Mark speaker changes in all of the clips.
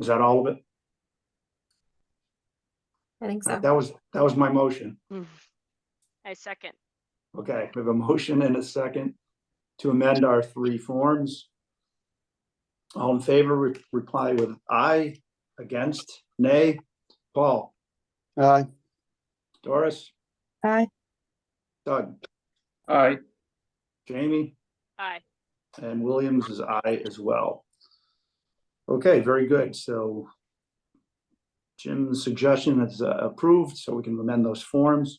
Speaker 1: Is that all of it?
Speaker 2: I think so.
Speaker 1: That was, that was my motion.
Speaker 3: Hmm. I second.
Speaker 1: Okay, we have a motion and a second to amend our three forms. All in favor, re- reply with aye, against, nay. Paul,
Speaker 4: Aye.
Speaker 1: Doris,
Speaker 2: Aye.
Speaker 1: Doug,
Speaker 4: Aye.
Speaker 1: Jamie,
Speaker 3: Aye.
Speaker 1: and Williams is aye as well. Okay, very good. So Jim's suggestion is uh, approved, so we can amend those forms.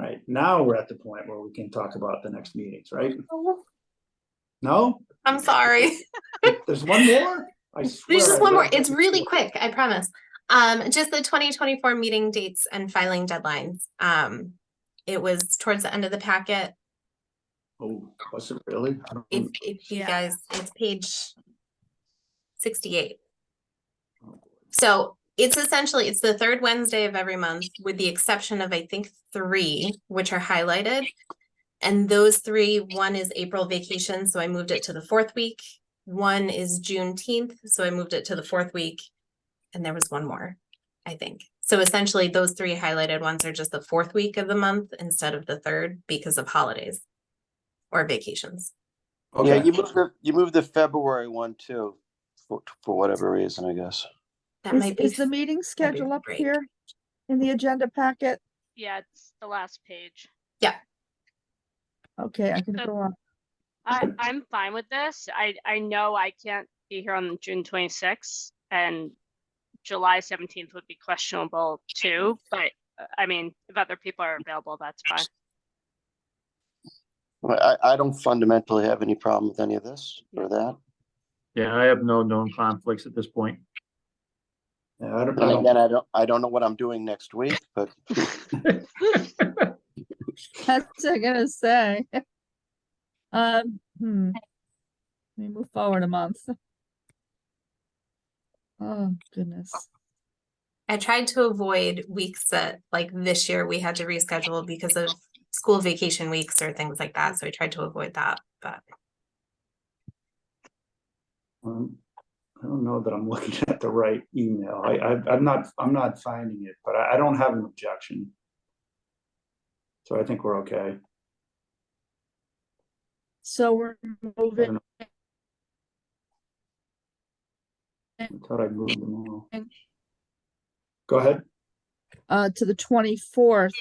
Speaker 1: Right, now we're at the point where we can talk about the next meetings, right? No?
Speaker 2: I'm sorry.
Speaker 1: There's one more? I swear.
Speaker 2: There's just
Speaker 1: I
Speaker 2: one more.
Speaker 1: read
Speaker 2: It's
Speaker 1: that
Speaker 2: really
Speaker 1: before.
Speaker 2: quick, I promise. Um, just the twenty twenty-four meeting dates and filing deadlines. Um, it was towards the end of the packet.
Speaker 1: Oh, was it really? I don't
Speaker 2: If,
Speaker 1: rem-
Speaker 2: if you
Speaker 5: Yeah.
Speaker 2: guys, it's page sixty-eight. So it's essentially, it's the third Wednesday of every month, with the exception of, I think, three, which are highlighted. And those three, one is April vacation, so I moved it to the fourth week. One is Juneteenth, so I moved it to the fourth week. And there was one more, I think. So essentially, those three highlighted ones are just the fourth week of the month instead of the third because of holidays or vacations.
Speaker 4: Yeah,
Speaker 1: Okay,
Speaker 4: you moved the, you moved the February one too, for, for whatever reason, I guess.
Speaker 2: That
Speaker 5: Is,
Speaker 2: might be.
Speaker 5: is the meeting
Speaker 2: might be
Speaker 5: schedule up
Speaker 2: break.
Speaker 5: here in the agenda packet?
Speaker 3: Yeah, it's the last page.
Speaker 5: Okay, I can
Speaker 3: So-
Speaker 5: go on.
Speaker 3: I, I'm fine with this. I, I know I can't be here on June twenty-sixth and July seventeenth would be questionable too, but uh, I mean, if other people are available, that's fine.
Speaker 4: But I, I don't fundamentally have any problem with any of this or that.
Speaker 6: Yeah, I have no known conflicts at this point.
Speaker 1: Yeah, I don't
Speaker 4: And
Speaker 1: know.
Speaker 4: again, I don't, I don't know what I'm doing next week, but
Speaker 5: That's what I'm gonna say. Um, hmm. Let me move forward a month. Oh, goodness.
Speaker 2: I tried to avoid weeks that, like this year, we had to reschedule because of school vacation weeks or things like that. So I tried to avoid that, but
Speaker 1: Um, I don't know that I'm looking at the right email. I, I, I'm not, I'm not finding it, but I, I don't have an objection. So I think we're okay.
Speaker 5: So we're moving,
Speaker 1: I thought I moved them all. Go ahead.
Speaker 5: uh, to the twenty-fourth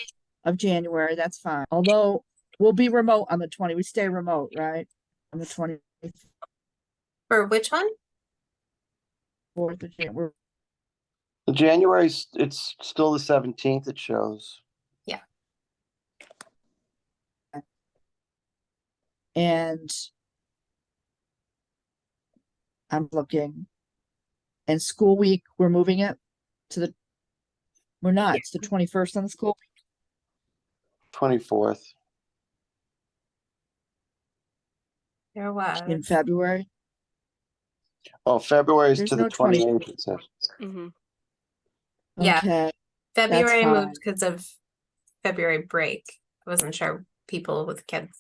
Speaker 5: of January, that's fine, although we'll be remote on the twenty, we stay remote, right? On the twenty-fourth
Speaker 2: for which one?
Speaker 5: of Jan, we're
Speaker 4: January's, it's still the seventeenth, it shows.
Speaker 5: And I'm looking. And school week, we're moving it to the, we're not, it's the twenty-first on the school.
Speaker 4: Twenty-fourth,
Speaker 2: There was.
Speaker 5: in February.
Speaker 4: oh, February's
Speaker 5: There's
Speaker 4: to the
Speaker 5: no 20.
Speaker 4: twenty-eighth, it says.
Speaker 3: hmm
Speaker 2: Yeah.
Speaker 5: Okay,
Speaker 2: February
Speaker 5: fine.
Speaker 2: moved because of February break. I wasn't sure people with kids.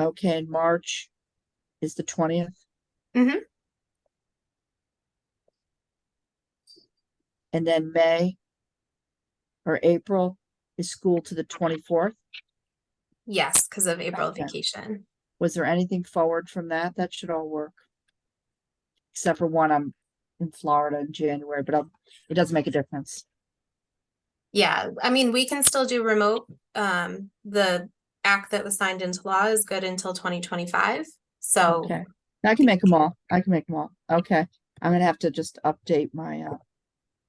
Speaker 5: okay, and March is the twentieth.
Speaker 2: Mhm.
Speaker 5: And then May or April is school to the twenty-fourth.
Speaker 2: Yes, because of April
Speaker 5: Okay.
Speaker 2: vacation.
Speaker 5: Was there anything forward from that? That should all work. Except for one, I'm in Florida in January, but I'll- it doesn't make a difference.
Speaker 2: Yeah, I mean, we can still do remote. Um, the act that was signed into law is good until twenty twenty-five. So
Speaker 5: Okay, I can make them all. I can make them all. Okay, I'm gonna have to just update my uh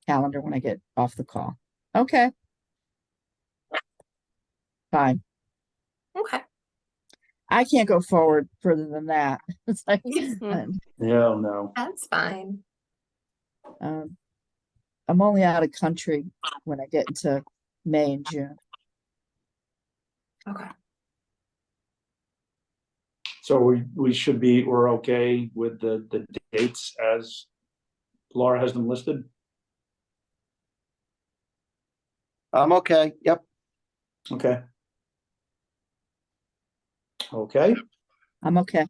Speaker 5: calendar when I get off the call. Okay. Fine.
Speaker 2: Okay,
Speaker 5: I can't go forward further than that. It's like,
Speaker 3: Mhm.
Speaker 5: um,
Speaker 1: Yeah, no.
Speaker 2: that's fine.
Speaker 5: um, I'm only out of country when I get into May and June.
Speaker 2: Okay.
Speaker 1: So we, we should be, we're okay with the, the dates as Laura has them listed?
Speaker 4: I'm okay, yep.
Speaker 1: Okay. Okay,
Speaker 5: I'm okay.